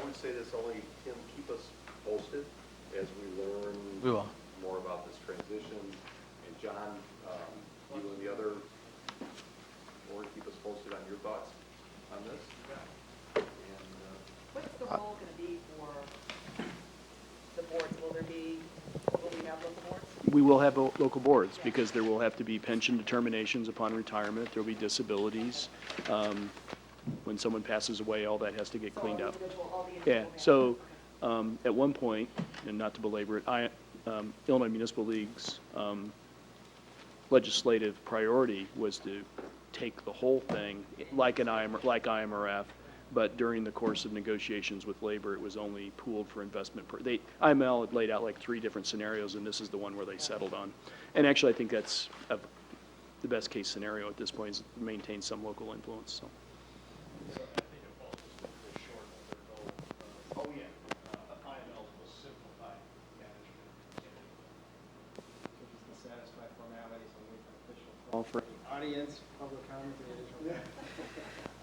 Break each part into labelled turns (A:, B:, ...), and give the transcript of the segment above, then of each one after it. A: would say this only, Tim, keep us posted as we learn.
B: We will.
A: More about this transition. And John, um, you and the other board, keep us posted on your thoughts on this. And, uh,
C: What's the role going to be for the boards? Will there be, will we have local boards?
D: We will have lo- local boards, because there will have to be pension determinations upon retirement, there'll be disabilities. Um, When someone passes away, all that has to get
C: So all
D: cleaned
C: the
D: up.
C: individual- all the individual
D: Yeah,
C: members.
D: so, um, at one point, and not to belabor it, I, um, Illinois Municipal League's, um, legislative priority was to take the whole thing, like an IMR, like IMRF, but during the course of negotiations with labor, it was only pooled for investment. per- They, IML had laid out like three different scenarios, and this is the one where they settled on. And actually, I think that's a- the best-case scenario at this point, is maintain some local influence, so.
E: Oh, yeah, uh, IML will simplify management.
F: Just to satisfy formalities and wait for official call for any audience, public comment, any additional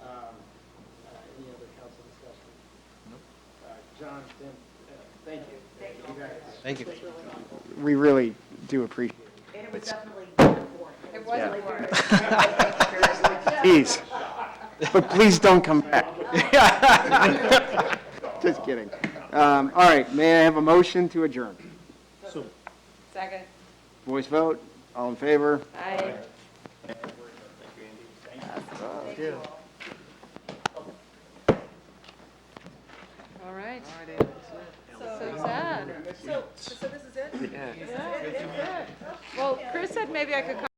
F: Um, uh, Any other council discussion? Nope. John, Tim, uh, thank you.
C: Thank you.
F: guys.
B: Thank you.
C: It was really helpful.
G: We really do appreciate
C: And it was definitely board. It was board.
G: it. Please. But please don't come back. Just kidding. Um, All right, may I have a motion to adjourn?
C: Second.
G: Voice vote, all in favor?
C: Aye.
H: All right. So sad.
C: So, so this is it?
H: Well, Chris said maybe I could come